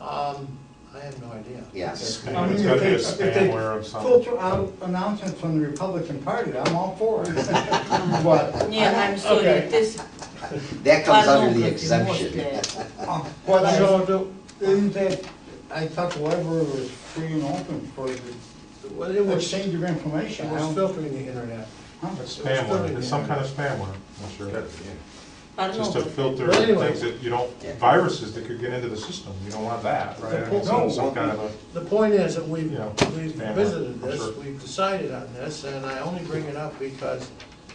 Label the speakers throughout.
Speaker 1: Um, I have no idea.
Speaker 2: Yes.
Speaker 3: I
Speaker 4: Spam.
Speaker 3: mean,
Speaker 4: It's if
Speaker 3: gotta be a
Speaker 4: they- if they
Speaker 3: spamware of some-
Speaker 4: Filter out announcements from the Republican Party, I'm all for it. But,
Speaker 5: Yeah, I'm sorry,
Speaker 1: Okay.
Speaker 5: this,
Speaker 2: That comes
Speaker 5: Pardon,
Speaker 2: under the
Speaker 5: but it
Speaker 2: exemption.
Speaker 5: was
Speaker 4: uh, but I,
Speaker 1: So, do-
Speaker 4: isn't that, I thought the library was free and open for the
Speaker 1: well, it was, it
Speaker 4: exchange of information. I
Speaker 1: was
Speaker 4: don't-
Speaker 1: filtering the internet.
Speaker 4: huh?
Speaker 3: It's spamware, it's some kind of spamware, I'm sure.
Speaker 5: pardon,
Speaker 3: Just to filter
Speaker 1: But anyway.
Speaker 3: things that you don't, viruses that could get into the system, you don't want that, right? I mean, some- Some kind of a.
Speaker 1: The point is that we've,
Speaker 3: Yeah.
Speaker 1: we've
Speaker 3: Yeah,
Speaker 1: visited
Speaker 3: I'm sure.
Speaker 1: this, we've decided on this, and I only bring it up because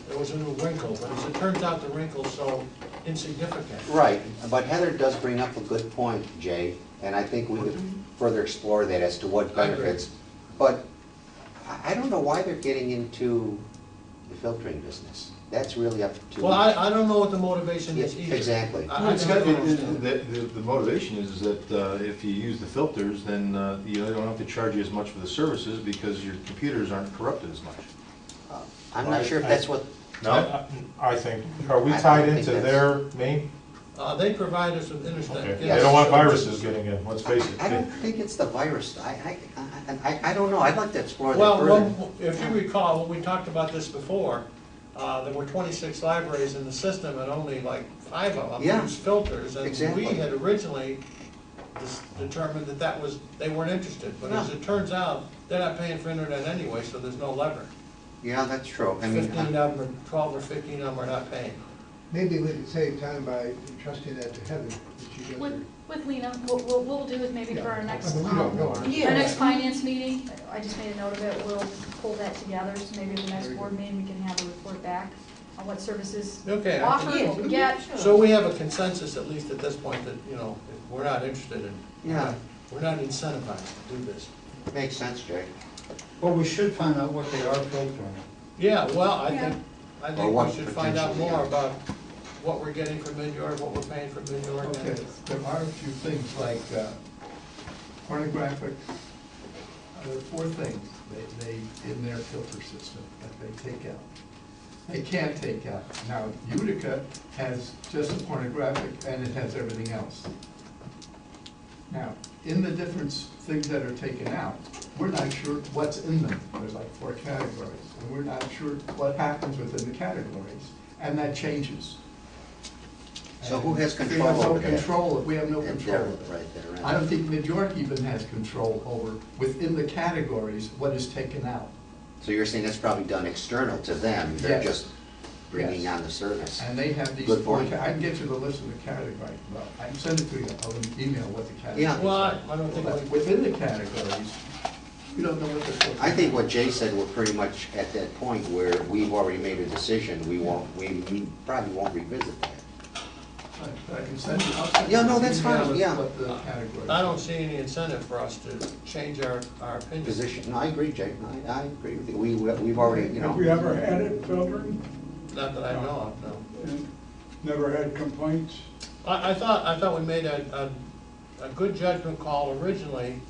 Speaker 1: there was a new wrinkle, but as it turns out, the wrinkle's so insignificant.
Speaker 2: Right, but Heather does bring up a good point, Jay, and I think we could further explore that as to what
Speaker 1: I agree.
Speaker 2: benefits. But I I don't know why they're getting into the filtering business. That's really up to.
Speaker 1: Well, I, I don't know what the motivation is
Speaker 2: Yeah,
Speaker 1: either.
Speaker 2: exactly.
Speaker 1: I- I
Speaker 6: Well, it's
Speaker 1: don't
Speaker 6: got- it- it-
Speaker 1: understand.
Speaker 6: The the- the motivation is that uh, if you use the filters, then uh, you don't have to charge you as much for the services because your computers aren't corrupted as much.
Speaker 2: I'm not sure if
Speaker 3: I-
Speaker 2: that's what,
Speaker 3: I- I think, are we
Speaker 2: I- I
Speaker 3: tied
Speaker 2: think
Speaker 3: into
Speaker 2: that's-
Speaker 3: their main?
Speaker 1: Uh, they provide us with
Speaker 3: Okay,
Speaker 1: internet.
Speaker 3: they don't want viruses getting in, let's face it.
Speaker 2: I don't think it's the virus. I, I, I, I don't know. I'd like to explore that
Speaker 1: Well,
Speaker 2: further.
Speaker 1: when- if you recall, when we talked about this before, uh, there were twenty-six libraries in the system and only like five of them
Speaker 2: Yeah,
Speaker 1: used filters. And
Speaker 2: exactly.
Speaker 1: we had originally dis- determined that that was, they weren't interested. But as
Speaker 2: Yeah.
Speaker 1: it turns out, they're not paying for internet anyway, so there's no lever.
Speaker 2: Yeah, that's true. I mean, uh,
Speaker 1: Fifteen of them, or twelve or fifteen of them are not paying.
Speaker 7: Maybe we could save time by entrusting that to Heather, that she does her.
Speaker 8: With, with Lena, what, what we'll do is maybe for our next,
Speaker 7: But we don't know
Speaker 8: um,
Speaker 7: her.
Speaker 8: our next
Speaker 5: yeah,
Speaker 8: finance meeting, I just made a note of it, we'll pull that together, so maybe the next
Speaker 7: Very
Speaker 8: board
Speaker 7: good.
Speaker 8: meeting, we can have a report back on what services
Speaker 1: Okay, I
Speaker 8: offered,
Speaker 1: think-
Speaker 8: what we get.
Speaker 5: Yeah,
Speaker 1: So we have a consensus, at least at this point, that, you know, we're not interested in,
Speaker 2: Yeah,
Speaker 1: we're not incentivized to do this.
Speaker 2: makes sense, Jay.
Speaker 4: Well, we should find out what they are filtering.
Speaker 1: Yeah, well, I
Speaker 8: Yeah.
Speaker 1: think, I
Speaker 2: Or
Speaker 1: think
Speaker 2: what
Speaker 1: we should find out
Speaker 2: potentially,
Speaker 1: more
Speaker 2: yeah.
Speaker 1: about what we're getting from Minyard, what we're paying for Minyard.
Speaker 7: Okay, uh, there are a few things like uh, pornographic, uh, there are four things they, they, in their filter system that they take out. They can take out. Now Utica has just pornographic and it has everything else. Now, in the different things that are taken out, we're not sure what's in them. There's like four categories, and we're not sure what happens within the categories, and that changes.
Speaker 2: So who has
Speaker 7: And
Speaker 2: control over
Speaker 7: We have no
Speaker 2: that?
Speaker 7: control, we have no
Speaker 2: And
Speaker 7: control
Speaker 2: there,
Speaker 7: over it.
Speaker 2: right there, right.
Speaker 7: I don't think New York even has control over, within the categories, what is taken out.
Speaker 2: So you're saying that's probably done external to them, they're
Speaker 7: Yes.
Speaker 2: just bringing
Speaker 7: Yes.
Speaker 2: on the service?
Speaker 7: And they have these
Speaker 2: Good
Speaker 7: four,
Speaker 2: point.
Speaker 7: ca- I can get you the list of the categories, well, I can send it to you, I'll email what the categories
Speaker 2: Yeah.
Speaker 7: are.
Speaker 1: Well, I- I don't think
Speaker 7: But
Speaker 1: we-
Speaker 7: Within the categories, you don't know what they're.
Speaker 2: I think what Jay said, we're pretty much at that point where we've already made a decision, we won't, we we probably won't revisit that.
Speaker 7: I I can send you, I'll send you.
Speaker 2: Yeah,
Speaker 7: an
Speaker 2: no, that's
Speaker 7: email
Speaker 2: fine,
Speaker 7: with
Speaker 2: yeah.
Speaker 7: What the categories.
Speaker 1: I
Speaker 7: are.
Speaker 1: don't see any incentive for us to change our, our opinion.
Speaker 2: Position, no, I agree, Jay, I, I agree with you, we, we've already, you
Speaker 9: Have we
Speaker 2: know,
Speaker 9: ever had it filtered
Speaker 1: Not that I know of, no.
Speaker 9: and never had complaints?
Speaker 1: I, I thought, I thought we made a, a, a good judgment call originally,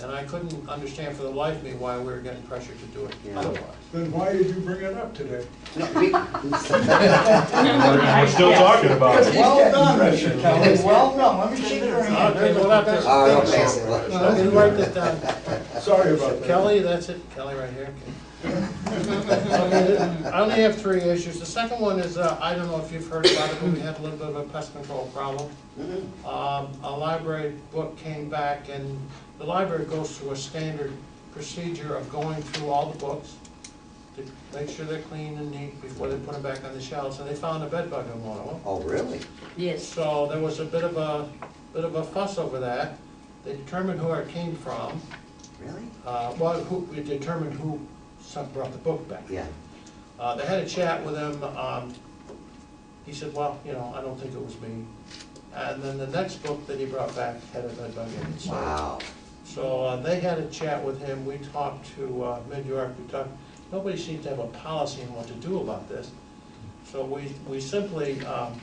Speaker 1: and I couldn't understand for the life of me why we were getting pressured to do it
Speaker 2: Yeah.
Speaker 1: otherwise.
Speaker 9: Then why did you bring it up today?
Speaker 2: no, we,
Speaker 3: We're still talking about it.
Speaker 4: Well done, Mr. Kelly, well done, let me shake your hand.
Speaker 1: Okay, well, that-
Speaker 4: That's-
Speaker 2: Oh, don't pass it.
Speaker 1: No, Let me write this down.
Speaker 9: Sorry about that.
Speaker 1: Kelly, that's it, Kelly right here. Okay. I only have three issues. The second one is, uh, I don't know if you've heard about it, but we had a little bit of a pest control problem. Um, A library book came back, and the library goes through a standard procedure of going through all the books to make sure they're clean and neat before they put them back on the shelves, and they found a bed bug in one of them.
Speaker 2: oh, really?
Speaker 5: yes.
Speaker 1: So there was a bit of a, bit of a fuss over that. They determined who it came from,
Speaker 2: Really?
Speaker 1: uh, well, who, we determined who some- brought the book back.
Speaker 2: Yeah,
Speaker 1: Uh, They had a chat with him, um, he said, well, you know, I don't think it was me. And then the next book that he brought back had a bed bug in it. so-
Speaker 2: wow,
Speaker 1: So uh, they had a chat with him, we talked to uh, Mid-York, we talked, nobody seemed to have a policy on what to do about this. So we, we simply, um,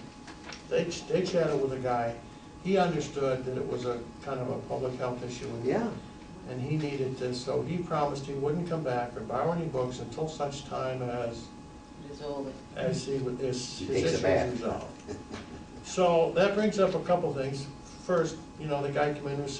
Speaker 1: they ch- they chatted with a guy, he understood that it was a kind of a public health issue. and-
Speaker 2: yeah,
Speaker 1: and he needed this, so he promised he wouldn't come back or borrow any books until such time as,
Speaker 5: Resolve it.
Speaker 1: as he, would- his,
Speaker 2: He
Speaker 1: his
Speaker 2: takes a
Speaker 1: issue
Speaker 2: bath.
Speaker 1: was resolved. So that brings up a couple things. First, you know, the guy came in and said.